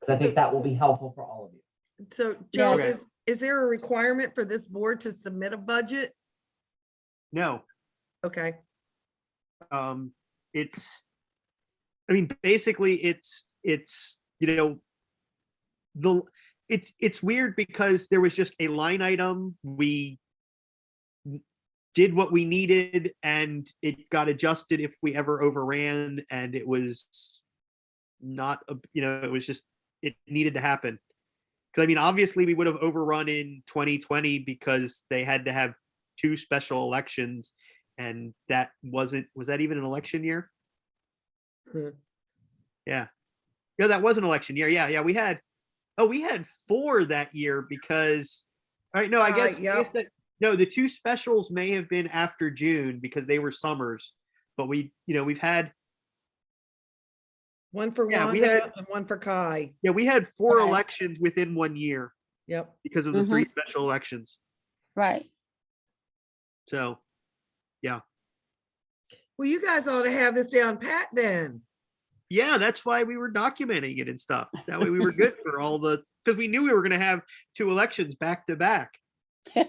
But I think that will be helpful for all of you. So Joe, Yes. is, is there a requirement for this board to submit a budget? No, Okay, um, it's, I mean, basically, it's, it's, you know, the, it's, it's weird because there was just a line item, we did what we needed and it got adjusted if we ever overran and it was not, a you know, it was just, it needed to happen. Cause I mean, obviously, we would have overrun in twenty twenty because they had to have two special elections and that wasn't was that even an election year Hmm. yeah yeah that was an election year yeah yeah we had oh we had four that year because all right no i Uh, guess, I yep. guess that, no the two specials may have been after june because they were summers but we you know we've had one for Yeah, we Wanda had- and one for Kai. yeah we had four Right. elections within one year Yep. because of the three Mm-hmm. special elections Right. so Well, you guys ought to have this down pat then. yeah that's why we were documenting it and stuff that way we were good for all the because we knew we were going to have two elections back to back And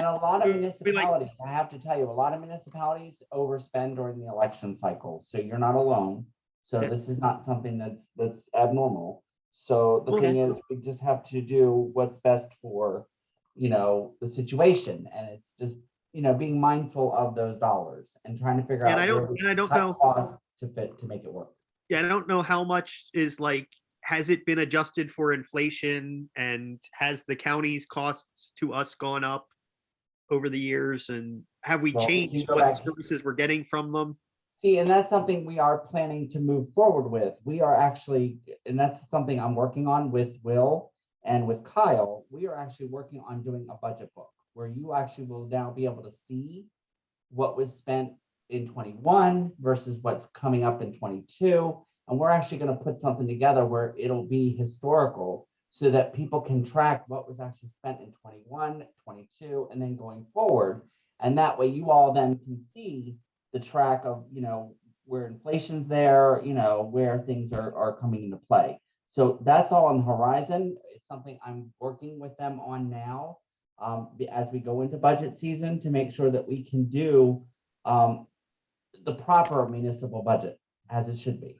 a lot of Be Mm, like- municipalities, I have to tell you, a lot of municipalities overspend during the election cycle, so you're not alone. So Yeah. this is not something that's, that's abnormal. So the Okay. thing is, we just have to do what's best for, you know, the situation, and it's just, you know, being mindful of those dollars and trying to figure out. And I where don't, we and I don't cut know, costs To fit, to make it work. yeah, I don't know how much is like, has it been adjusted for inflation? And has the county's costs to us gone up over the years? And have we Well, if you changed go what back- services we're getting from them? See, and that's something we are planning to move forward with. We are actually, and that's something I'm working on with Will and with Kyle. We are actually working on doing a budget book where you actually will now be able to see what was spent in twenty-one versus what's coming up in twenty-two. And we're actually gonna put something together where it'll be historical so that people can track what was actually spent in 21, 22, and then going forward. And that way you all then can see the track of, you know, where inflation's there, you know, where things are, are coming into play. So that's all on the horizon. It's something I'm working with them on now. Um, be- as we go into budget season to make sure that we can do, um, the proper municipal budget as it should be.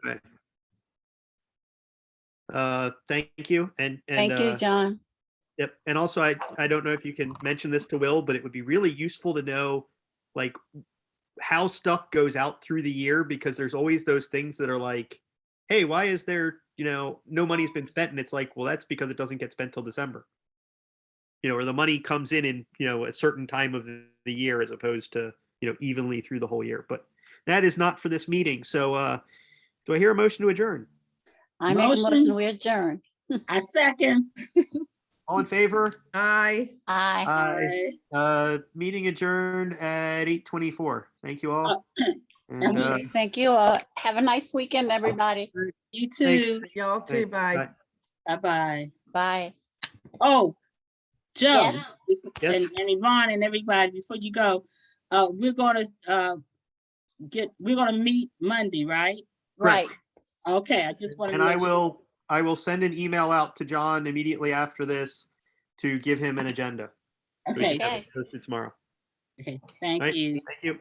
Uh, thank you and, and, Thank you, uh, John. yep. And also, I, I don't know if you can mention this to Will, but it would be really useful to know, like, how stuff goes out through the year, because there's always those things that are like, hey, why is there, you know, no money's been spent? And it's like, well, that's because it doesn't get spent till December. You know, or the money comes in in, you know, a certain time of the the year as opposed to, you know, evenly through the whole year. But that is not for this meeting. So uh do I hear a motion to adjourn? I make a motion, Motion. we adjourn. I second. All in favor? Aye. Aye. Aye. Uh, meeting adjourned at eight twenty-four. Thank you all. And, uh, Okay. Thank you. all. Have a nice weekend, everybody. You too. Y'all too, Thanks. bye. Bye. Bye-bye. Bye. Oh, Joe Yes. Yes. and and Yvonne and everybody, before you go, uh, we're gonna, uh, get, we're gonna meet Monday, right? Right. correct. Okay, I just wanna. And I make sure. will, I will send an email out to John immediately after this to give him an agenda. so he Okay, can have it Okay. Posted tomorrow. okay, Right. thank you. Thank you.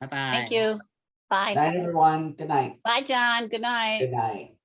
Bye-bye. Thank you. Bye. Night, everyone. Good night. Bye, John. Good night. Good night.